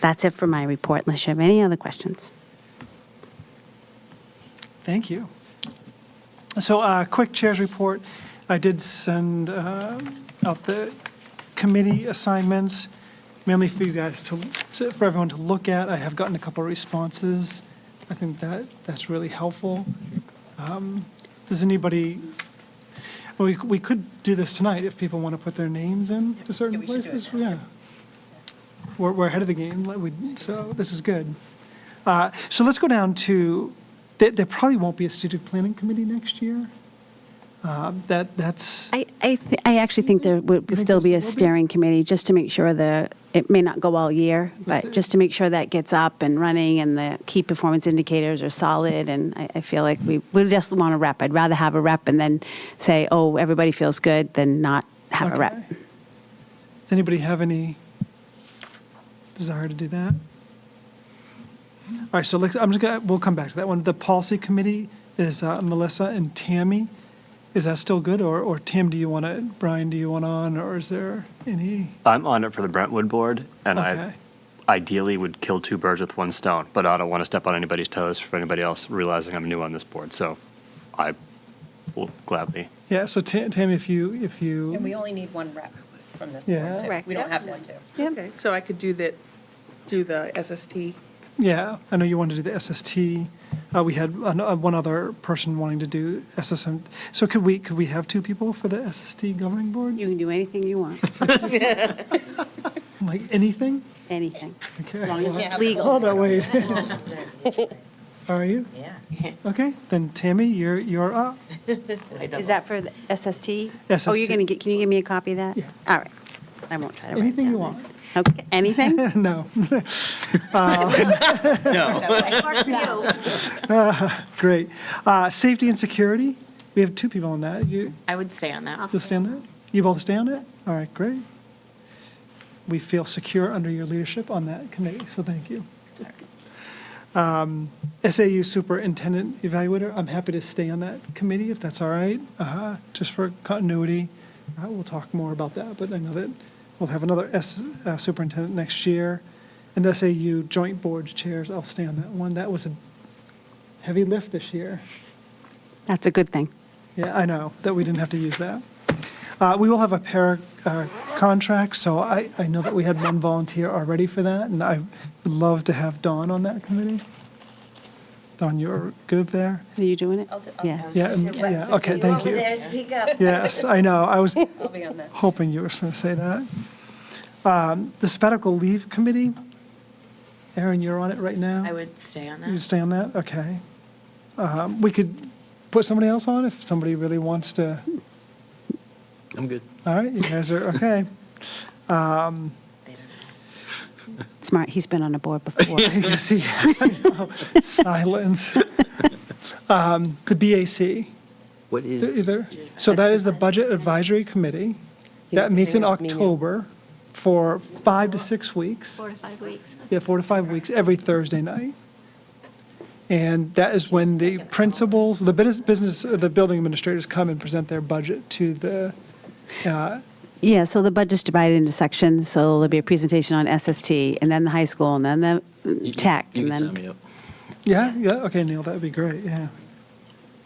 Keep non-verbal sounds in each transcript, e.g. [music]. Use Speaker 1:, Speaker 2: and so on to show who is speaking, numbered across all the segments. Speaker 1: That's it for my report, unless you have any other questions.
Speaker 2: Thank you. So, uh, quick chair's report. I did send uh, out the committee assignments, mainly for you guys to, to- for everyone to look at. I have gotten a couple of responses. I think that, that's really helpful. Um, Does anybody, well, we, we could do this tonight if people want to put their names in to certain
Speaker 3: we should do it
Speaker 2: places.
Speaker 3: now.
Speaker 2: Yeah. We're, we're ahead of the game, like we- so this is good. Uh, So let's go down to, there, there probably won't be a strategic planning committee next year. Uh, That, that's,
Speaker 1: I, I, thi- I actually think there would
Speaker 2: think
Speaker 1: still be
Speaker 2: there
Speaker 1: a
Speaker 2: still will be?
Speaker 1: steering committee, just to make sure the, it may not go all year, but just to make sure that gets up and running and the key performance indicators are solid, and I, I feel like we, we just want a rep. I'd rather have a rep and then say, oh, everybody feels good, than not have a rep.
Speaker 2: Okay. does anybody have any desire to do that? All right, so let's, I'm just gonna, we'll come back to that one. The policy committee is uh, Melissa and Tammy. Is that still good, or, or Tim, do you want to, Brian, do you want on, or is there any?
Speaker 4: I'm on it for the Brentwood board, and
Speaker 2: Okay.
Speaker 4: I ideally would kill two birds with one stone, but I don't want to step on anybody's toes for anybody else realizing I'm new on this board. So I will gladly.
Speaker 2: Yeah, so Ta- Tammy, if you, if you.
Speaker 3: And we only need one rep from this
Speaker 2: Yeah.
Speaker 3: board, too.
Speaker 5: Correct.
Speaker 3: We don't have one, too.
Speaker 5: Okay, so I could do that, do the SST.
Speaker 2: Yeah, I know you wanted to do the SST. Uh, we had an, uh, one other person wanting to do SSM. So could we could we have two people for the SST governing board?
Speaker 1: You can do anything you want,
Speaker 2: like anything? [laughs]
Speaker 1: anything,
Speaker 2: Okay.
Speaker 1: as long as it's
Speaker 3: Yeah.
Speaker 1: legal.
Speaker 2: Hold on, wait. [laughs] Are you
Speaker 3: Yeah.
Speaker 2: okay? Then Tammy, you're you're up.
Speaker 1: Is that for the SST? Oh,
Speaker 2: SST.
Speaker 1: you're going to get, can you give me a copy of that?
Speaker 2: Yeah.
Speaker 1: All right, I won't try to write it
Speaker 2: Anything you
Speaker 1: down.
Speaker 2: want. [laughs]
Speaker 1: Okay, anything?
Speaker 2: no. Great. Uh, safety and security. We have two people on that. You
Speaker 6: I would stay on that.
Speaker 2: you'll stay on that. You both stay on it. All right, great. We feel secure under your leadership on that committee, so thank you. Um, SAU Superintendent Evaluator, I'm happy to stay on that committee if that's all right, uh, just for continuity. Uh, We'll talk more about that, but I know that we'll have another S- uh, superintendent next year. And the SAU Joint Board Chairs, I'll stay on that one. That was a heavy lift this year.
Speaker 1: That's a good thing.
Speaker 2: Yeah, I know, that we didn't have to use that. Uh, We will have a pair uh, contract, so I, I know that we had one volunteer already for that, and I would love to have Dawn on that committee. Dawn, you're good there?
Speaker 1: Are you doing it?
Speaker 3: I'll do- I'll-
Speaker 1: Yeah.
Speaker 2: Yeah, and- yeah, okay, thank
Speaker 7: Over
Speaker 2: you.
Speaker 7: there, speak up.
Speaker 2: Yes, I know, I was
Speaker 3: I'll be on that.
Speaker 2: hoping you were going to say that. Um, The sabbatical leave committee, Erin, you're on it right now?
Speaker 6: I would stay on
Speaker 2: You
Speaker 6: that.
Speaker 2: stay on that? Okay. Um, We could put somebody else on if somebody really wants to.
Speaker 4: I'm good.
Speaker 2: All right, you guys are,
Speaker 8: [laughs]
Speaker 2: okay.
Speaker 1: Smart, he's been on a board before.
Speaker 2: [laughs] Yes, he- I know. Silence. Um, The BAC,
Speaker 9: What is?
Speaker 2: either, so that is the Budget Advisory Committee. That meets in October for five to six weeks.
Speaker 8: Four to five weeks.
Speaker 2: Yeah, four to five weeks, every Thursday night. And that is when the principals, the business- business, the building administrators come and present their budget to the, uh,
Speaker 1: Yeah, so the budget's divided into sections, so there'll be a presentation on SST, and then the high school, and then the uh, tech,
Speaker 9: You
Speaker 1: and
Speaker 9: can sign me
Speaker 1: then,
Speaker 9: up.
Speaker 2: yeah, yeah, okay, Neil, that'd be great, yeah.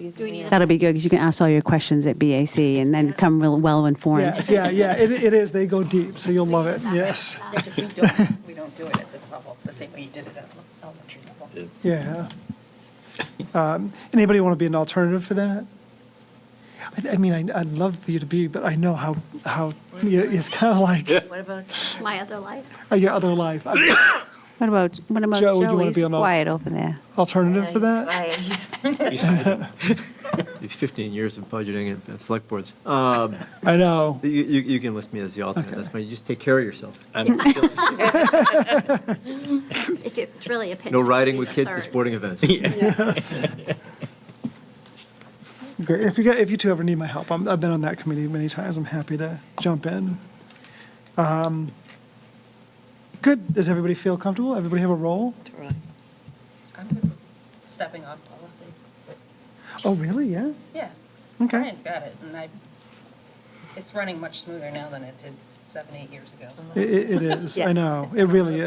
Speaker 8: Do we need
Speaker 1: that'll be good, because you can ask all your questions at BAC, and then come real well-informed.
Speaker 2: Yes, yeah, yeah, it, it is, they go deep, so you'll love it, yes,
Speaker 3: Because we
Speaker 2: [laughs]
Speaker 3: don't, we don't do it at this level, the same way you did it at elementary level.
Speaker 2: yeah. Um, Anybody want to be an alternative for that? I, I mean, I- I'd love for you to be, but I know how, how, yeah, it's kind of like
Speaker 6: What about
Speaker 8: my other life?
Speaker 2: your other life.
Speaker 1: What about, what about
Speaker 2: Joe, would you wanna
Speaker 1: Joey's?
Speaker 2: be on all-
Speaker 1: Quiet over there.
Speaker 2: Alternative for that?
Speaker 7: Right, he's-
Speaker 6: [laughs]
Speaker 10: Fifteen years of budgeting at- at select boards. Um, [laughs]
Speaker 2: I know.
Speaker 10: You, you you can list me as the alternate, that's fine, you just take care of yourself.
Speaker 9: I'm [laughs] feeling
Speaker 8: If it's really a pinch.
Speaker 10: No
Speaker 8: it would
Speaker 10: riding
Speaker 8: be
Speaker 10: with
Speaker 8: the
Speaker 10: kids to
Speaker 8: third.
Speaker 10: sporting events.
Speaker 2: Great. If you, got- if you two ever need my help, I'm, I've been on that committee many times. I'm happy to jump in. Um, Good. Does everybody feel comfortable? Everybody have a role?
Speaker 3: I'm good with stepping off policy.
Speaker 2: Oh, really? Yeah?
Speaker 3: Yeah.
Speaker 2: Okay.
Speaker 3: Brian's got it, and I, it's running much smoother now than it did seven, eight years ago. so.
Speaker 2: Uh-huh. It, it it is. I
Speaker 1: Yes.
Speaker 2: know. It really is.